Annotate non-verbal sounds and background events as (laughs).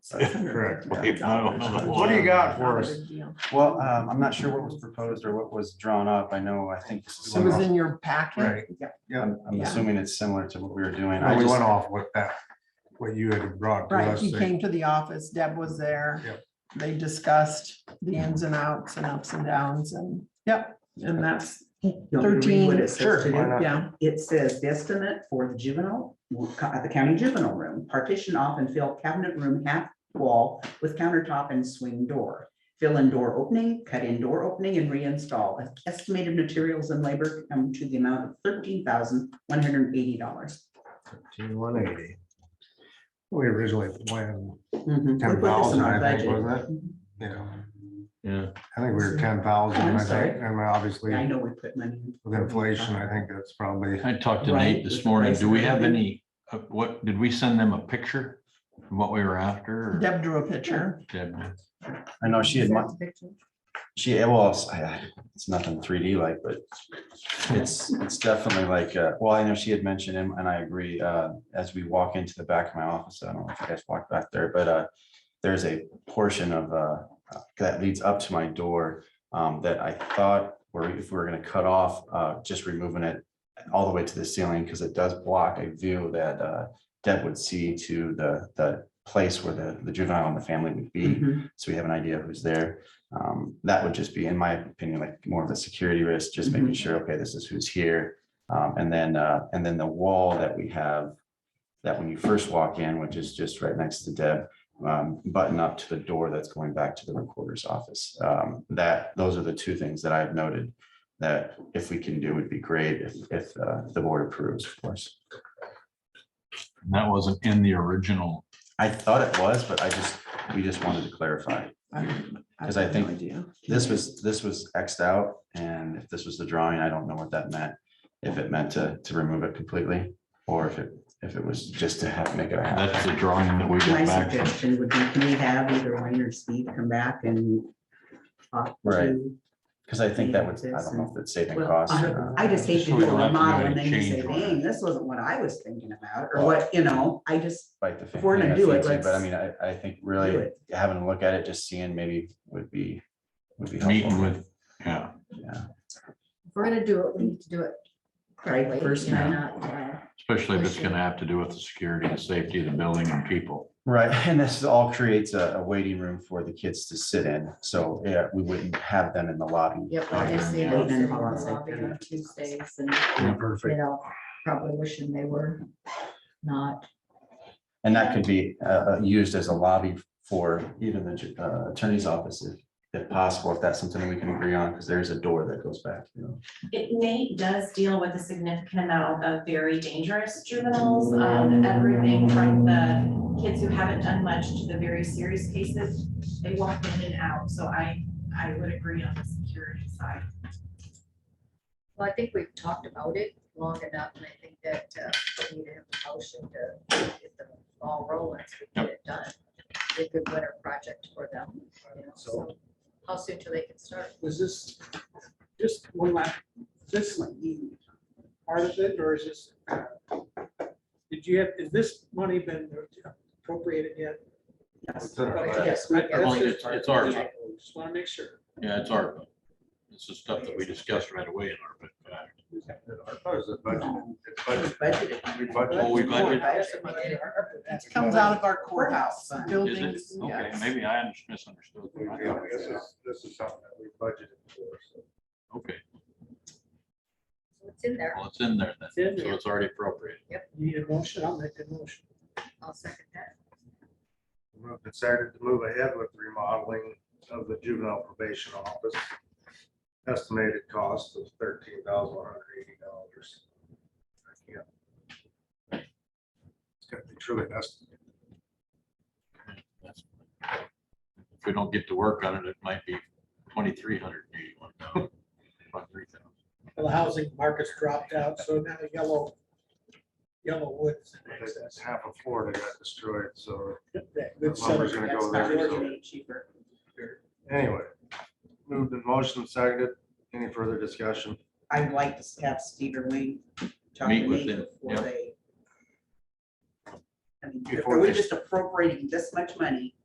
Correct. What do you got for us? Well, um, I'm not sure what was proposed or what was drawn up. I know, I think. It was in your packet. Right. Yeah. I'm I'm Yeah. assuming it's similar to what we were doing. I I just- went off with that, what you had brought to Right, us. he came to the office, Deb was there. Yep. They discussed the ins and outs and ups and downs and, yep, and that's What thirteen. it says to why do? not? Yeah, It says estimate for the juvenile, at the county juvenile room, partition off and fill cabinet room half wall with countertop and swing door. Fill in door opening, cut in door opening and reinstall. Estimated materials and labor come to the amount of thirteen thousand one hundred and eighty dollars. One eighty. We originally planned Ten ten thousand, I think, wasn't it? Yeah. Yeah. I think we were ten thousand, I'm I sorry. think, and obviously I know we put money. in. with inflation, I think that's probably, I talked to Right, Nate this with morning. Do we price have of everything. any, uh, what, did we send them a picture? From what we were after? or Deb drew a picture. did we? I know she had, mu- she, eh, well, it's- I- I- it's nothing three D like, but it's, it's definitely like, uh, well, I know she had mentioned him and I agree, uh, as we walk into the back of my office, I don't know if you guys walked back there, but, uh, there's a portion of, uh, that leads up to my door, um, that I thought, were if we were gonna cut off, uh, just removing it all the way to the ceiling, because it does block a view that, uh, Deb would see to the, the place where the, the juvenile and the family would be Mhm. so we have an idea who's there. Um, that would just be, in my opinion, like more of a security risk, just making Mhm. sure, okay, this is who's here. Um, and then, uh, and then the wall that we have, that when you first walk in, which is just right next to Deb, um, button up to the door that's going back to the recorder's office. Um, that, those are the two things that I've noted that if we can do would be great if, if, uh, the board approves, of course. And That wasn't in the original. I thought it was, but I just, we just wanted to clarify. Because I have no think idea. This was, this was Xed out, and if this was the drawing, I don't know what that meant. If it meant to, to remove it completely, or if it, if it was just to have, make it a half. That's the drawing that we My got back from. suggestion would be, can we have either Wayne or Steve come back and talk Right. to Because I think that was, I don't know if it's saving costs. or Well, not. I I just hate to So we do don't a have to do model and then any you say, change on it. dang, this wasn't what I was thinking about, or what, you know, I just Bite the if we're fin- gonna yeah, do it, fancy, But I let's mean, I, I think do really it. having a look at it, just seeing maybe would be, would be Meeting helpful. with, yeah. Yeah, If we're gonna do it, we need to do it correctly. Right, first you know, time. not, uh, Especially if it's gonna have to do with the security and safety of the building and people. Right, (laughs) and this all creates a, a waiting room for the kids to sit in, so, yeah, we wouldn't have them in the lobby. Yep, I guess they yeah. don't sit in the Yeah. lobby on Tuesdays and, you perfect. know, probably wishing they were not. And that could be uh, uh, used as a lobby for even the ju- uh, attorney's office if, if possible, if that's something we can agree on, because there's a door that goes back, you know. It Nate does deal with a significant amount of very dangerous juveniles, um, everything from the kids who haven't done much to the very serious cases. They walk in and out, so I, I would agree on the security side. Well, I think we've talked about it long enough and I think that uh, we need to have a motion to get the ball rolling so we get it done. Be A good winter project for them. you know, so How soon till they can start? Is this, just one last, is this like you part of it, or is this? Did you have, has this money been appropriated yet? Yes. Okay, Yes, that- we- that's It's- just- it's ours. yeah, Just want to make sure. Yeah, it's our. It's the stuff that we discussed right away in our. uh, we budgeted on it. Oh, we budgeted? I asked about the ARPA. It comes out of our courthouse Is it? buildings. Okay, yes. maybe I mis- misunderstood. This is, this is something that we budgeted for, so. Okay, So It's in there. well, it's in there then. It's in there. So it's already appropriate. You Need a motion, I'll make a motion. I'll second that. We've decided to move ahead with remodeling of the juvenile probation office. Estimated cost of thirteen thousand one hundred eighty dollars. It's got to be truly estimated. That's- If we don't get to work on it, it might be twenty-three hundred and eighty-one (laughs) dollars. Well, The housing market's dropped out, so now yellow, yellow woods. I think that's Half of Florida got destroyed, so That good That lumber's gonna go southern- there, so- Georgia, Cheaper. anyway. Moved in motion, seconded. Any further discussion? I'd like to have Steve or Wayne talk to Meet with me them, before yeah. they. I mean, if Before we're they- just appropriating this much money,